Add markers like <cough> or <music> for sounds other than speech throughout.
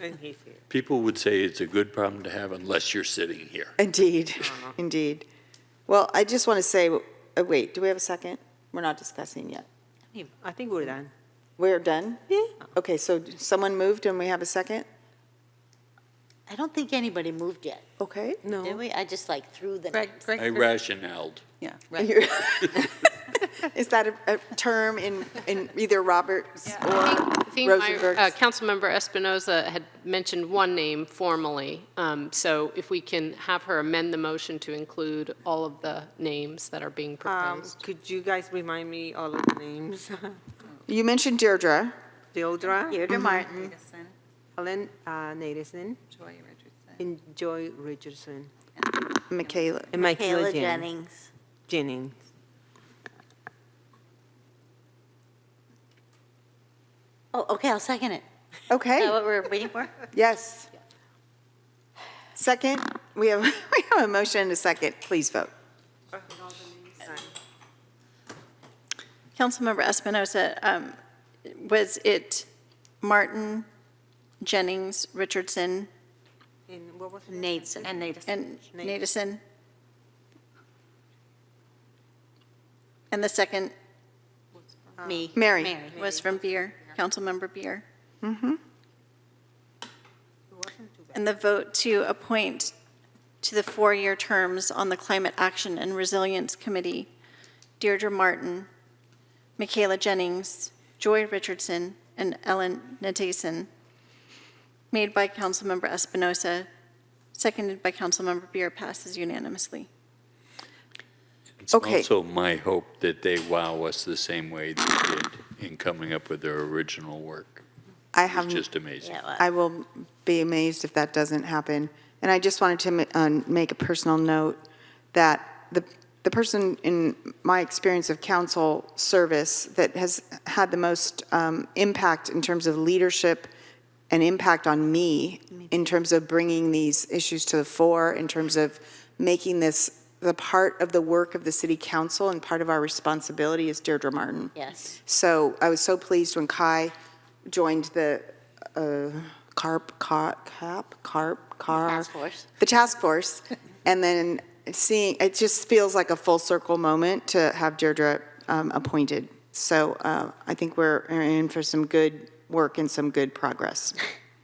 And he's here. People would say it's a good problem to have unless you're sitting here. Indeed, <laughs> indeed. Well, I just want to say, uh, wait, do we have a second? We're not discussing yet. I think we're done. We're done? Uh-huh. Yeah. Okay, so d- someone moved and we have a second? I don't think anybody moved yet, Okay. did No. we? I just like threw the. Greg, Greg. I rationaled. You're- <laughs> Is that a, a term in, in either Roberts or I think my, uh, Rosenberg's? Councilmember Espinoza had mentioned one name formally, Um, so if we can have her amend the motion to include all of the names that are being Um, proposed. could you guys remind me all of the names? <laughs> You mentioned Deirdre. Deodra, Deirdre Martin. Mm-hmm. Helen uh, Naderson, and Joy Richardson, Michaela. and Michaela Kayla Jen- Jennings. Jennings. Oh, okay, I'll second it. Is that Okay, what we're waiting for? yes. Second, we have, <laughs> we have a motion and a second. Please vote. Councilmember Espinoza, um, was it Martin, Jennings, Richardson, And what was her name? <laughs> Nateson. And Nateson. and Nadeson? And the second Me. Mary. was from Beer, Councilmember Beer. And the vote to appoint to the four-year terms on the Climate Action and Resilience Committee, Deirdre Martin, Michaela Jennings, Joy Richardson, and Ellen Natason, made by Councilmember Espinosa, seconded by Councilmember Beer, passes unanimously. It's Okay. also my hope that they wow us the same way they did in coming up with their original work. I It's have, just amazing. Yeah, well, I will be amazed if that doesn't happen. And I just wanted to ma- uh, make a personal note that the, the person in my experience of council service that has had the most um, impact in terms of leadership and impact on me in terms of bringing these issues to the fore, in terms of making this the part of the work of the city council and part of our responsibility is Deirdre Martin. Yes. So I was so pleased when Kai joined the uh, CARP, car- CAP, CARP, CAR. Task force. The task force. <laughs> And then seeing, it just feels like a full circle moment to have Deirdre um, appointed. So uh, I think we're in for some good work and some good progress.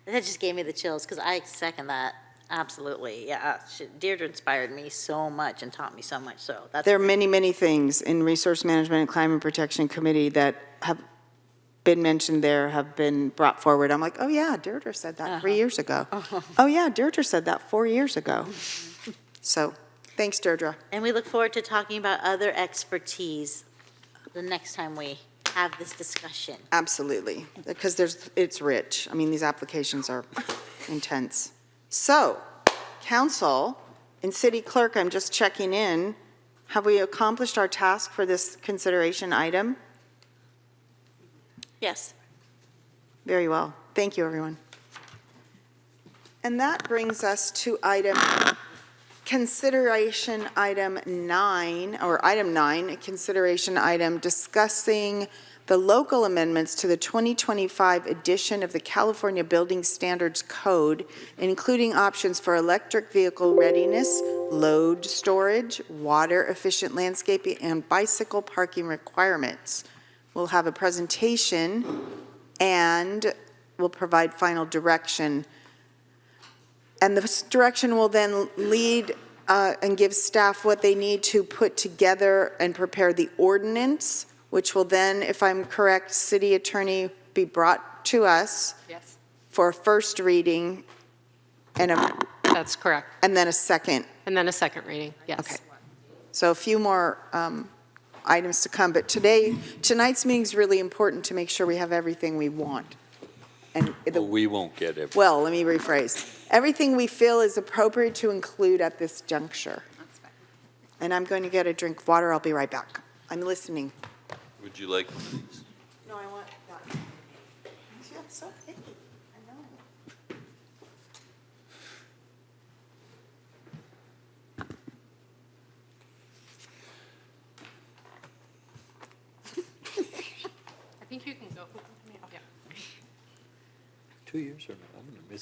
That just gave me the chills, because I second that, absolutely, yeah. uh, she- Deirdre inspired me so much and taught me so much, so that's. There are many, many things in Resource Management and Climate Protection Committee that have been mentioned there, have been brought forward. I'm like, oh yeah, Deirdre said that three years ago. Oh yeah, Deirdre said that four years ago. So, thanks Deirdre. And we look forward to talking about other expertise the next time we have this discussion. Absolutely, because there's, it's rich. I mean, these applications are intense. So, council and city clerk, I'm just checking in. Have we accomplished our task for this consideration item? Yes. Very well. Thank you, everyone. And that brings us to item, consideration item nine, or item nine, consideration item discussing the local amendments to the 2025 edition of the California Building Standards Code, including options for electric vehicle readiness, load storage, water-efficient landscaping, and bicycle parking requirements. We'll have a presentation and will provide final direction. And this direction will then lead uh, and give staff what they need to put together and prepare the ordinance, which will then, if I'm correct, city attorney, be brought to us Yes. for a first reading and a, That's correct. and then a second. And then a second reading, yes. Okay. So a few more um, items to come, but today, tonight's meeting is really important to make sure we have everything we want. And the Well, we won't get it. well, let me rephrase. Everything we feel is appropriate to include at this juncture. And I'm going to get a drink of water. I'll be right back. I'm listening. Would you like one of these? No, I want that. Yeah, so picky. I know. I think you can go. Two years or not? I'm going to miss